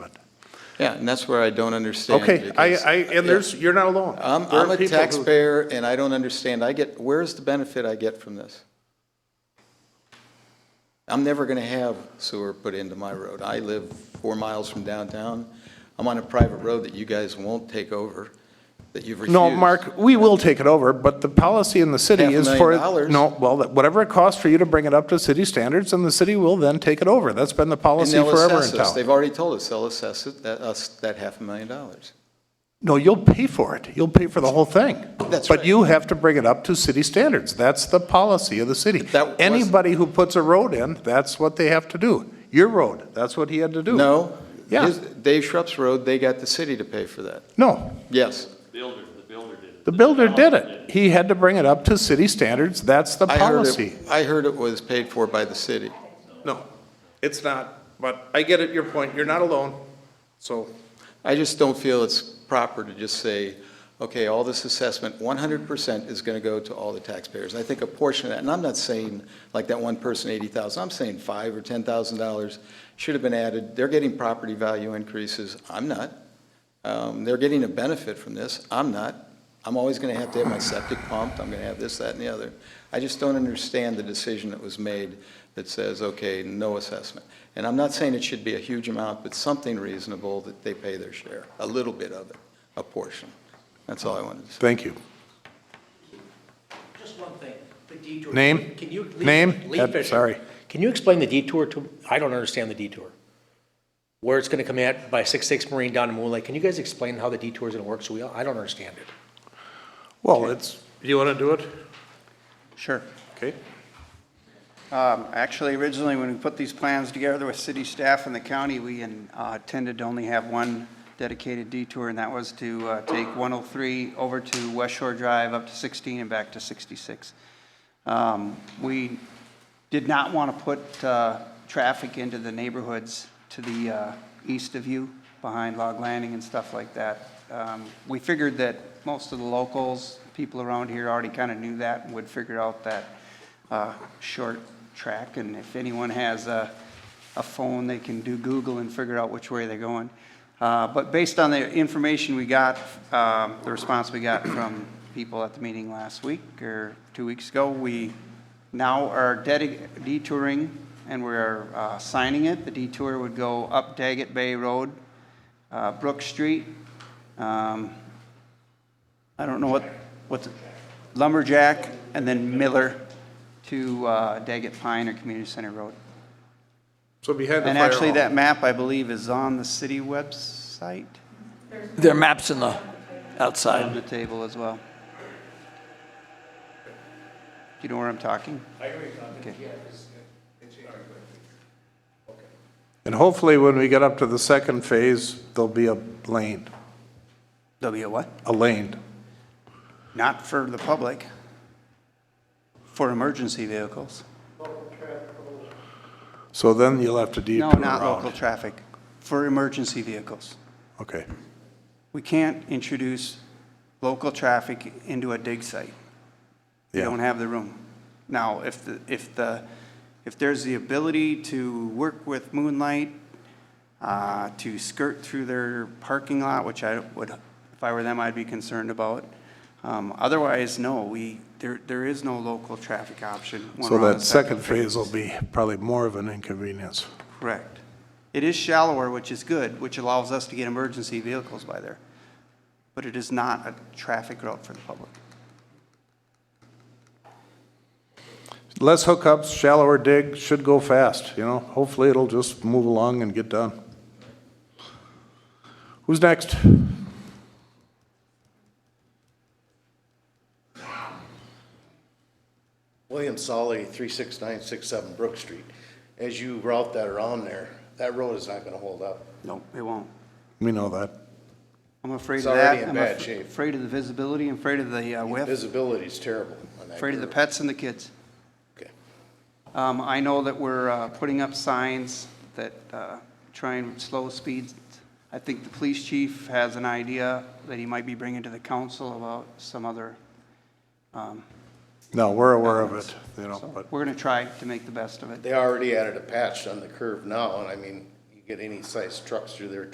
Yeah, and that's where I don't understand. Okay, I, because- I, and there's, you're not alone. I'm, There are I'm a people who- taxpayer and I don't understand. I get, where's the benefit I get from this? I'm never gonna have sewer put into my road. I live four miles from downtown. I'm on a private road that you guys won't take over, that you've refused. No, Mark, we will take it over, but the policy in the Half city a is million for. dollars. No, well, that- whatever it costs for you to bring it up to city standards, and the city will then take it over. That's been the And policy they'll forever in assess us. town. They've already told us, they'll assess it, that, us, that half a million dollars. No, you'll pay for it. You'll pay for the whole thing. That's But right. you have to bring it up to city standards. That's the policy of the city. But that was- Anybody who puts a road in, that's what they have to do. Your road, that's what he had to do. No? Yeah. his- Dave Shrup's road, they got the city to pay for that. No, Yes. Builder, the builder did it. the builder did developer it. He had to bring it up to city standards. That's the I heard it- policy. I heard it was paid for by the city. No, it's not, but I get it, your point. You're not alone, so. I just don't feel it's proper to just say, okay, all this assessment, 100% is going to go to all the taxpayers. I think a portion of that, and I'm not saying like that one person, 80,000, I'm saying five or $10,000 should have been added. They're getting property value increases, I'm not. Um, They're getting a benefit from this, I'm not. I'm always going to have to have my septic pumped, I'm going to have this, that, and the other. I just don't understand the decision that was made that says, okay, no assessment. And I'm not saying it should be a huge amount, but something reasonable that they pay their share, a little bit of it, a portion. That's all I wanted to say. Thank you. Just one thing, the detour. Name? Can you- Lee- Name? Lee Uh, Fisher. sorry. Can you explain the detour to, I don't understand the detour. Where it's gonna come at by six-six Marine down to Moon Lake. Can you guys explain how the detour is gonna work? So we, I don't understand it. Well, it's, you want to do it? Sure. Okay. Um, Actually, originally, when we put these plans together with city staff and the county, we uh, intended to only have one dedicated detour, and that was to uh, take 103 over to West Shore Drive, up to 16 and back to 66. Um, We did not want to put uh, traffic into the neighborhoods to the uh, east of you, behind Log Landing and stuff like that. Um, We figured that most of the locals, people around here already kind of knew that and would figure out that uh, short track. And if anyone has a a phone, they can do Google and figure out which way they're going. Uh, But based on the information we got, um, the response we got from people at the meeting last week or two weeks ago, we now are dedi- detouring and we're uh, signing it. The detour would go up Daggett Bay Road, uh, Brook Street. um, I don't know what, what's it, Lumberjack and then Miller to uh, Daggett Pine or Community Center Road. So behind the fire And actually, hall. that map, I believe, is on the city website, There are maps in the, on outside. the table as well. Do you know where I'm talking? And hopefully, when we get up to the second phase, there'll be a lane, There'll be a what? a lane. Not for the public, for emergency vehicles. So then you'll have to detour No, around. not local traffic, for emergency vehicles. Okay. We can't introduce local traffic into a dig site. We Yeah. don't have the room. Now, if the, if the, if there's the ability to work with Moonlight, uh, to skirt through their parking lot, which I would, if I were them, I'd be concerned about. Um, Otherwise, no, we, there, there is no local traffic option. when So we're on that the second phase will be probably more of an inconvenience. Correct. It is shallower, which is good, which allows us to get emergency vehicles by there. But it is not a traffic route for the public. Less hookups, shallower dig, should go fast, you know? Hopefully, it'll just move along and get done. Who's next? William Solly, 36967 Brook Street. As you route that around there, that road is not going to hold up. No, it won't. We know that. I'm afraid of It's that. already in I'm bad af- shape. Afraid of the visibility, I'm afraid of the uh, width, Visibility's terrible on that. afraid of the curve. pets and the kids. Okay. Um, I know that we're uh, putting up signs that uh, try and slow speeds. I think the police chief has an idea that he might be bringing to the council about some other. No, we're aware of it, you know, So but We're going to try to make the best of it. They already added a patch on the curve now, and I mean, you get any size trucks through there,